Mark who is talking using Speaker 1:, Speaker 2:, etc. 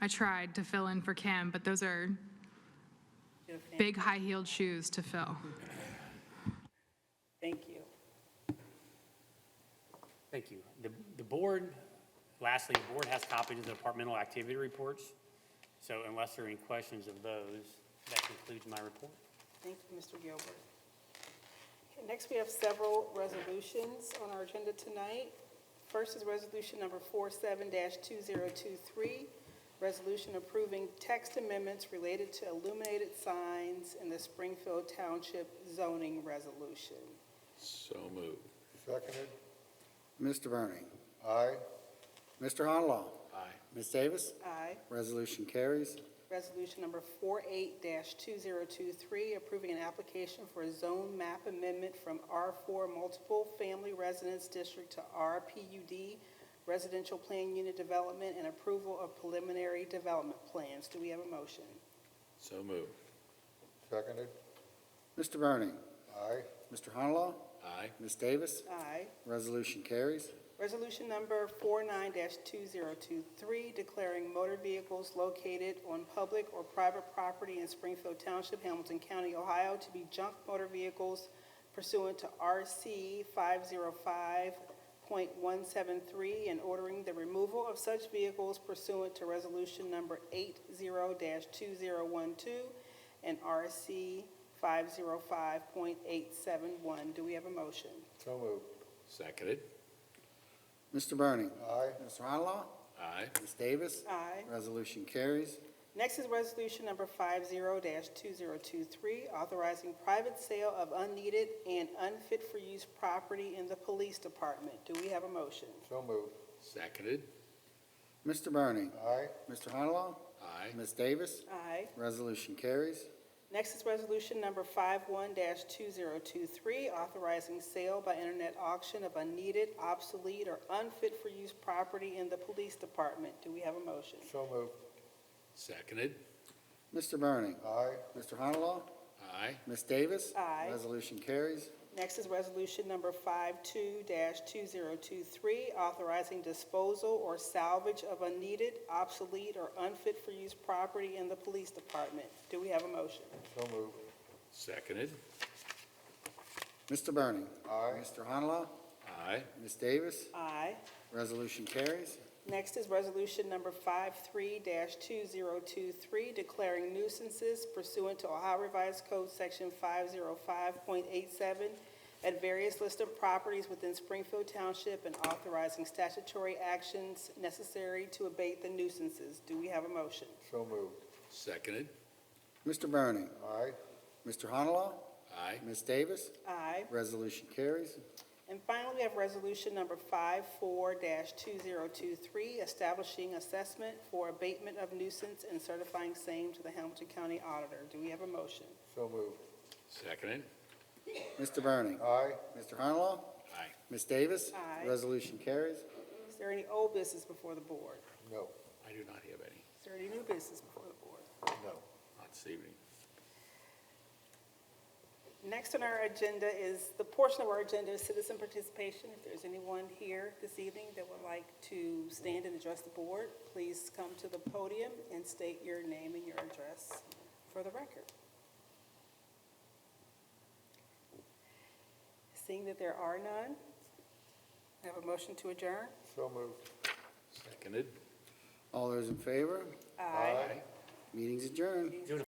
Speaker 1: I tried to fill in for Kim, but those are big high-heeled shoes to fill.
Speaker 2: Thank you.
Speaker 3: Thank you. The, the board, lastly, the board has copies of the departmental activity reports. So unless there are any questions of those, that concludes my report.
Speaker 2: Thank you, Mr. Gilbert. Okay, Next, we have several resolutions on our agenda tonight. First is Resolution Number 47-2023, resolution approving text amendments related to illuminated signs in the Springfield Township zoning resolution.
Speaker 4: So moved.
Speaker 5: Seconded.
Speaker 6: Mr. Burning.
Speaker 5: Aye.
Speaker 6: Mr. Honalaw.
Speaker 4: Aye.
Speaker 6: Ms. Davis.
Speaker 2: Aye.
Speaker 6: Resolution carries.
Speaker 2: Resolution number 48-2023, approving an application for a zone map amendment from R4 Multiple Family Residence District to RPUD Residential Plan Unit Development and approval of preliminary development plans. Do we have a motion?
Speaker 4: So moved.
Speaker 5: Seconded.
Speaker 6: Mr. Burning.
Speaker 5: Aye.
Speaker 6: Mr. Honalaw.
Speaker 4: Aye.
Speaker 6: Ms. Davis.
Speaker 2: Aye.
Speaker 6: Resolution carries.
Speaker 2: Resolution number 49-2023, declaring motor vehicles located on public or private property in Springfield Township, Hamilton County, Ohio, to be junk motor vehicles pursuant to RC 505.173, and ordering the removal of such vehicles pursuant to Resolution number 80-2012 and RC 505.871. Do we have a motion?
Speaker 5: So moved.
Speaker 4: Seconded.
Speaker 6: Mr. Burning.
Speaker 5: Aye.
Speaker 6: Mr. Honalaw.
Speaker 4: Aye.
Speaker 6: Ms. Davis.
Speaker 2: Aye.
Speaker 6: Resolution carries.
Speaker 2: Next is Resolution Number 50-2023, authorizing private sale of unneeded and unfit-for-use property in the Police Department. Do we have a motion?
Speaker 5: So moved.
Speaker 4: Seconded.
Speaker 6: Mr. Burning.
Speaker 5: Aye.
Speaker 6: Mr. Honalaw.
Speaker 4: Aye.
Speaker 6: Ms. Davis.
Speaker 2: Aye.
Speaker 6: Resolution carries.
Speaker 2: Next is Resolution Number 51-2023, authorizing sale by internet auction of unneeded, obsolete, or unfit-for-use property in the Police Department. Do we have a motion?
Speaker 5: So moved.
Speaker 4: Seconded.
Speaker 6: Mr. Burning.
Speaker 5: Aye.
Speaker 6: Mr. Honalaw.
Speaker 4: Aye.
Speaker 6: Ms. Davis.
Speaker 2: Aye.
Speaker 6: Resolution carries.
Speaker 2: Next is Resolution Number 52-2023, authorizing disposal or salvage of unneeded, obsolete, or unfit-for-use property in the Police Department. Do we have a motion?
Speaker 5: So moved.
Speaker 4: Seconded.
Speaker 6: Mr. Burning.
Speaker 5: Aye.
Speaker 6: Mr. Honalaw.
Speaker 4: Aye.
Speaker 6: Ms. Davis.
Speaker 2: Aye.
Speaker 6: Resolution carries.
Speaker 2: Next is Resolution Number 53-2023, declaring nuisances pursuant to Ohio Revised Code Section 505.87 at various list of properties within Springfield Township and authorizing statutory actions necessary to abate the nuisances. Do we have a motion?
Speaker 5: So moved.
Speaker 4: Seconded.
Speaker 6: Mr. Burning.
Speaker 5: Aye.
Speaker 6: Mr. Honalaw.
Speaker 4: Aye.
Speaker 6: Ms. Davis.
Speaker 2: Aye.
Speaker 6: Resolution carries.
Speaker 2: And finally, we have Resolution Number 54-2023, establishing assessment for abatement of nuisance and certifying same to the Hamilton County Auditor. Do we have a motion?
Speaker 5: So moved.
Speaker 4: Seconded.
Speaker 6: Mr. Burning.
Speaker 5: Aye.
Speaker 6: Mr. Honalaw.
Speaker 4: Aye.
Speaker 6: Ms. Davis.
Speaker 2: Aye.
Speaker 6: Resolution carries.
Speaker 2: Is there any old business before the board?
Speaker 5: No.
Speaker 4: I do not have any.
Speaker 2: Is there any new business before the board?
Speaker 5: No.
Speaker 4: Not this evening.
Speaker 2: Next on our agenda is, the portion of our agenda is citizen participation. If there's anyone here this evening that would like to stand and address the board, please come to the podium and state your name and your address for the record. Seeing that there are none, I have a motion to adjourn.
Speaker 5: So moved.
Speaker 4: Seconded.
Speaker 6: All those in favor? Meeting's adjourned.
Speaker 3: June